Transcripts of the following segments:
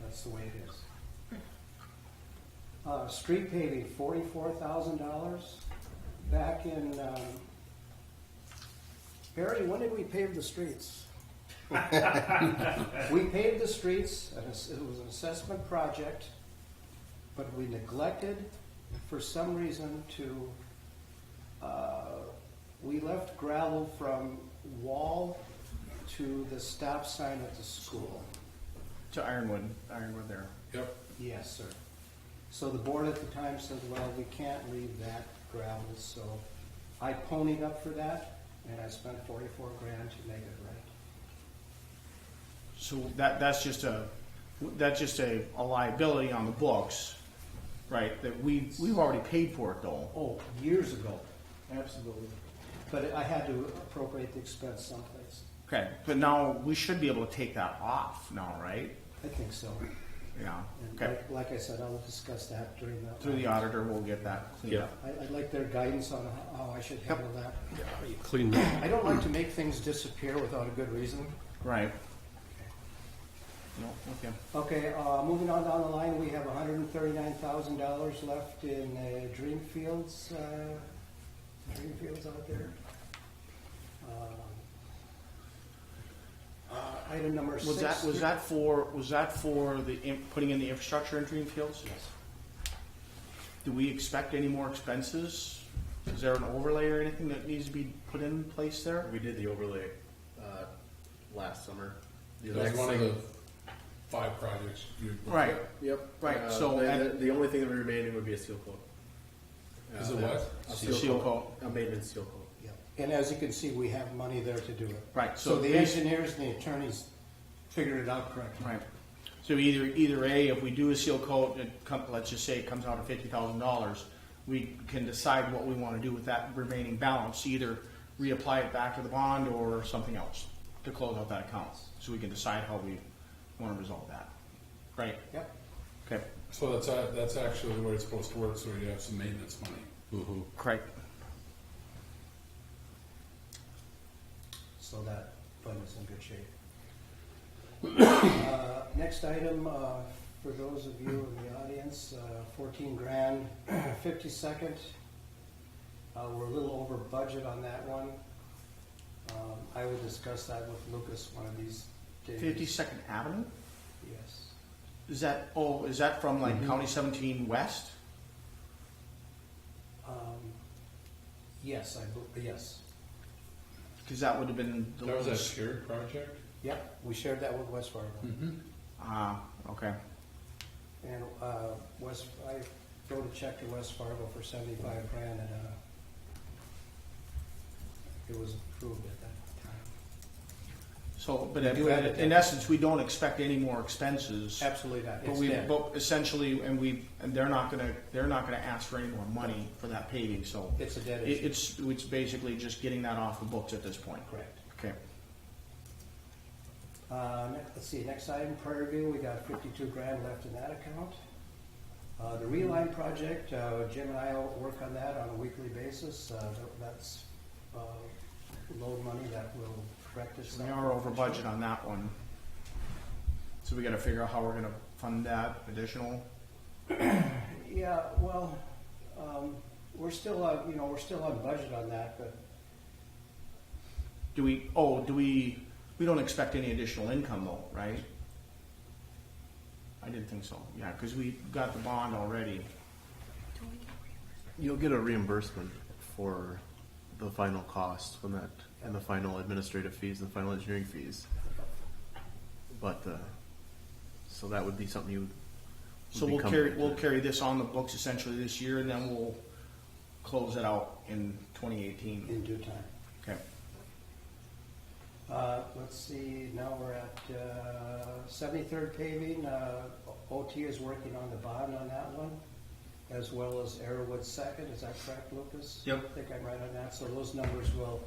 that's the way it is. Uh, street paving, forty-four thousand dollars. Back in, um, Barry, when did we pave the streets? We paved the streets, and it's- it was an assessment project, but we neglected, for some reason, to, uh, we left gravel from wall to the stop sign at the school. To Ironwood, Ironwood there. Yep. Yes, sir. So the board at the time said, well, we can't leave that gravel, so I ponied up for that, and I spent forty-four grand to make it right. So that, that's just a, that's just a, a liability on the books, right? That we, we've already paid for it though. Oh, years ago, Absolutely. but I had to appropriate the expense someplace. Okay, but now we should be able to take that off now, right? I think so. Yeah, And okay. like, like I said, I'll discuss that during the. Through the auditor, we'll get that cleaned Yeah. up. I, I'd like their guidance on how- how I should handle that. Clean that. I don't like to make things disappear without a good reason. Right. No, okay. Okay, uh, moving on down the line, we have hundred and thirty-nine thousand dollars left in, uh, Dreamfields, uh, Dreamfields out there. Uh, uh, Item number six. Was that, was that for, was that for the, in- putting in the infrastructure in Dreamfields? Yes. Do we expect any more expenses? Is there an overlay or anything that needs to be put in place there? We did the overlay uh, last summer. The That exact was one of same- the five projects you. Right, Yep. Right, Uh, so the, the, and- the only thing that would remain would be a seal coat. Is Uh, it what? A Seal seal, coat. coat. A maintenance seal coat. Yeah. And as you can see, we have money there to do it. Right, so So the basi- engineers and the attorneys figured it out correctly. right. So either, either A, if we do a seal coat, it come, let's just say it comes out at fifty thousand dollars, we can decide what we wanna do with that remaining balance, either reapply it back to the bond or something else to close out that account, so we can decide how we wanna resolve that. Right, Yep. okay, So that's, a- that's actually the way it's supposed to work, so you have some maintenance money. correct. So that fund is in good shape. Uh, Next item, uh, for those of you in the audience, uh, fourteen grand, fifty-second. Uh, we're a little over budget on that one. Um, I will discuss that with Lucas one of these days. Fifty-second Avenue? Yes. Is that, oh, is that from like County Seventeen West? Um, Yes, I, bel- yes. Cause that would have been. the That was a lowest. shared project? Yep, we shared that with West Fargo. Ah, okay. And uh, West, I wrote a check to West Fargo for seventy-five grand and uh, it was approved at that time. So, but We in, do have it. in essence, we don't expect any more expenses. Absolutely not. But It's we, dead. but essentially, and we, and they're not gonna, they're not gonna ask for any more money for that paving, so. It's a dead It, issue. it's, it's basically just getting that off the books at this point. Correct. Okay. Um, Let's see, next item, Prairie View, we got fifty-two grand left in that account. Uh, The Reline project, uh, Jim and I will work on that on a weekly basis. Uh, That's uh, loan money that will correct So we itself. are over budget on that one. So we gotta figure out how we're gonna fund that additional. Yeah, well, um, we're still, on- you know, we're still on budget on that, but Do we, oh, do we, we don't expect any additional income though, right? I didn't think so, yeah, cause we got the bond already. You'll get a reimbursement for the final cost when that and the final administrative fees and the final engineering fees. But uh, so that would be something you. would So be we'll carry, comfortable we'll with. carry this on the books essentially this year and then we'll close it out in twenty eighteen. in due time. Okay. Uh, Let's see, now we're at uh, seventy-third paving, Uh, OT is working on the bond on that one, as well as Arrowwood second, is that correct, Lucas? Yep. I think I'm right on that, so those numbers will,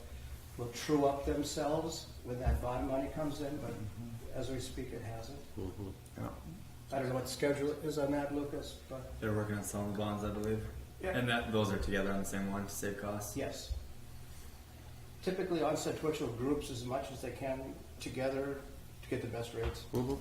will true up themselves when that bond money comes in, but as we speak, it hasn't. Yeah. I don't know what schedule it is on that, Lucas, but They're working on selling the bonds, I believe. Yeah. And that those are together on the same one to save costs. yes. Typically, on sequential groups as much as they can together to get the best rates. Okay.